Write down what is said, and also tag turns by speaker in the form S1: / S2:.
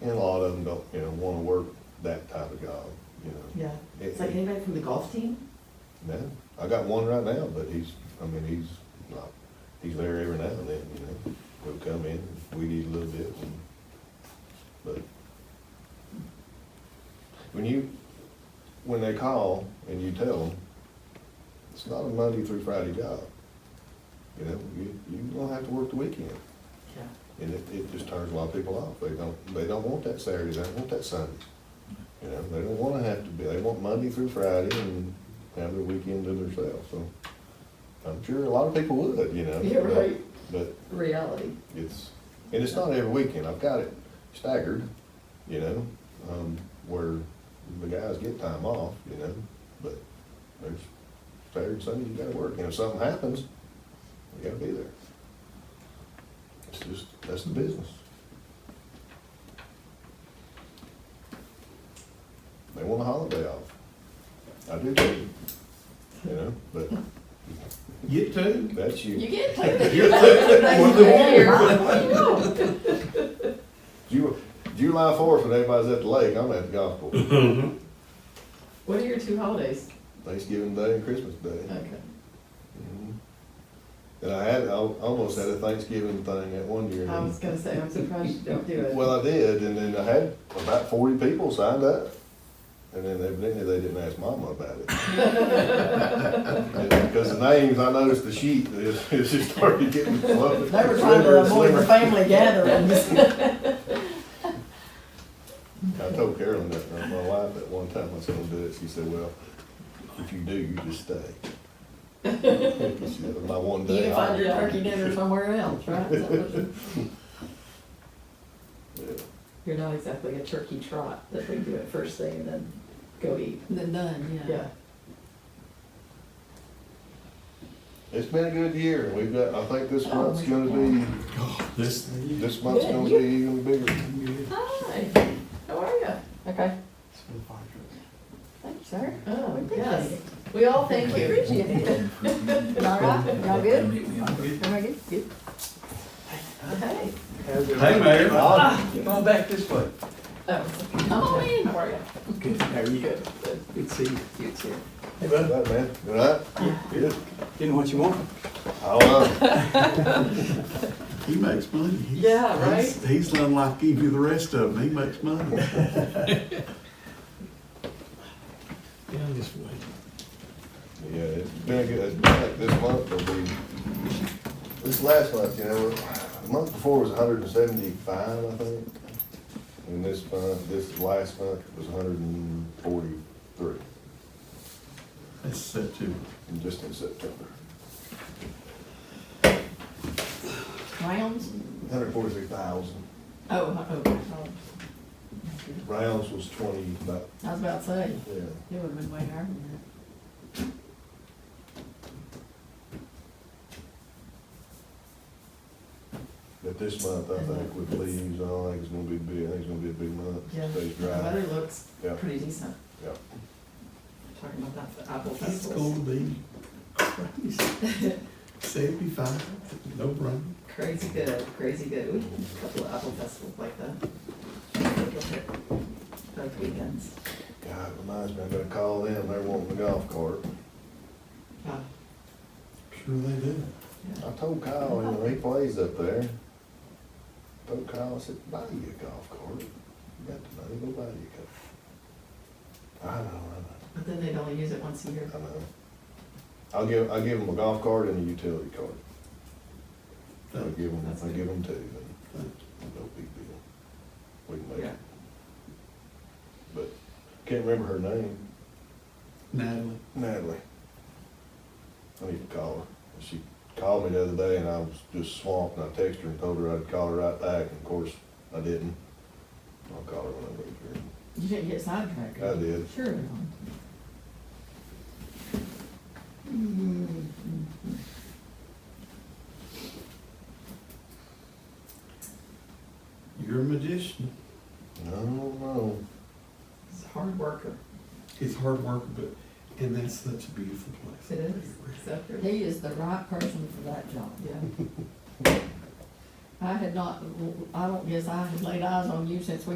S1: And a lot of them don't, you know, wanna work that type of job, you know.
S2: Yeah,
S1: It-
S2: it's like anybody from the golf team?
S1: No, I got one right now, but he's, I mean, he's not, he's there every now and then, you know. He'll come in, we need a little bit, and, but when you, when they call and you tell them, it's not a Monday through Friday job. You know, you, you don't have to work the weekend,
S2: Yeah.
S1: and it, it just turns a lot of people off. They don't, they don't want that Saturday, they don't want that Sunday. You know, they don't wanna have to be, they want Monday through Friday and have their weekend to themselves, so. I'm sure a lot of people would, you know.
S2: Yeah, right,
S1: But
S2: reality.
S1: it's, and it's not every weekend, I've got it staggered, you know, um, where the guys get time off, you know, but there's Saturday, Sunday, you gotta work, and if something happens, you gotta be there. It's just, that's the business. They want a holiday off, I do too, you know, but
S3: You too?
S1: that's
S2: You
S1: you,
S2: get to.
S3: You too? What do you want?
S2: Yeah.
S1: Ju- July fourth, when everybody's at the lake, I'm at the golf course.
S2: What are your two holidays?
S1: Thanksgiving Day and Christmas Day.
S2: Okay.
S1: Mhm. And I had, I almost had a Thanksgiving thing at one year.
S2: I was gonna say, I'm surprised you don't do it.
S1: Well, I did, and then I had about forty people signed up. And then evidently they didn't ask mama about it. And Because the names, I noticed the sheet, it it just started getting flooded.
S4: They were trying to avoid the family gatherings.
S1: I told Carolyn that, uh, my wife, that one time I was gonna do it, she said, well, if you do, you just stay. She said, My one
S4: You
S1: day.
S4: can find your
S1: off."
S4: turkey dinner somewhere else, right?
S1: Yeah.
S2: You're not exactly a turkey trot that we do it first thing and then go eat.
S4: Then done, yeah.
S2: Yeah.
S1: It's been a good year. We've got, I think this
S4: Oh,
S1: month's
S4: my
S1: gonna be,
S3: This,
S1: this month's
S2: Good.
S1: gonna be even bigger.
S2: Hi, how are you?
S4: Okay. Thank you, sir.
S2: Oh,
S4: We
S2: yes.
S4: appreciate
S2: We all thank
S4: We
S2: you.
S4: appreciate it. All right, y'all good? Everybody good? Good. Oh,
S2: Hey.
S3: Hey, Mayor.
S1: I'll-
S5: Come on back this way.
S2: Oh, I'm all in. How are you?
S5: Good, how are you?
S2: Good, good.
S5: Good to see you. Good to see you.
S1: Good night, man. Good night. Good.
S5: Getting what you want?
S1: I don't know.
S6: He makes money. He's-
S2: Yeah,
S6: he's- He's unlike any of the rest of them. He makes money.
S3: Down this way.
S1: Yeah, it's been a good, it's been like this month will be, this last month, you know, the month before was hundred and seventy-five, I think. And this month, this last month was hundred and forty-three,
S6: That's September.
S1: just in September.
S4: Rounds?
S1: Hundred forty-three thousand.
S4: Oh, okay.
S1: Rounds was twenty, about,
S4: I was about to say,
S1: yeah.
S4: it would have been way higher than that.
S1: But this month, I think with leaves, and all, I think it's gonna be big, I think it's gonna be a big month,
S2: Yeah.
S1: stays
S2: The
S1: dry.
S2: weather looks
S1: Yeah.
S2: pretty decent.
S1: Yeah.
S2: Talking about that for apple
S6: It's
S2: festivals.
S6: gonna be crazy. Seventy-five, no rain.
S2: Crazy good, crazy good. We had a couple of apple festivals like that. Both weekends.
S1: God, it reminds me, I gotta call them, they're wanting the golf cart.
S2: Oh,
S6: Sure they do.
S2: yeah.
S1: I told Kyle, you know, he plays up there. Told Kyle, I said, buy you a golf cart. You got the money, go buy you a golf. I know,
S2: But then they'd only use it once a year.
S1: I know, I know. I'll give, I'll give him a golf cart and a utility cart. I'll give him, I'll give him two, and no big deal. We can make
S2: Yeah.
S1: it. But, can't remember her name.
S6: Natalie.
S1: Natalie. I need to call her. She called me the other day and I was just swamped and I texted her and told her I'd call her right back and of course I didn't. I'll call her when I leave
S4: You didn't get sidetracked.
S1: here. I did.
S4: Sure. not. Mm,
S6: You're a magician.
S1: No, no.
S2: It's a hard worker.
S6: He's hard work, but, and that's such a beautiful place.
S2: It is. Exactly.
S4: He is the right person for that job.
S2: Yeah.
S4: I had not, I don't guess I had laid eyes on you since we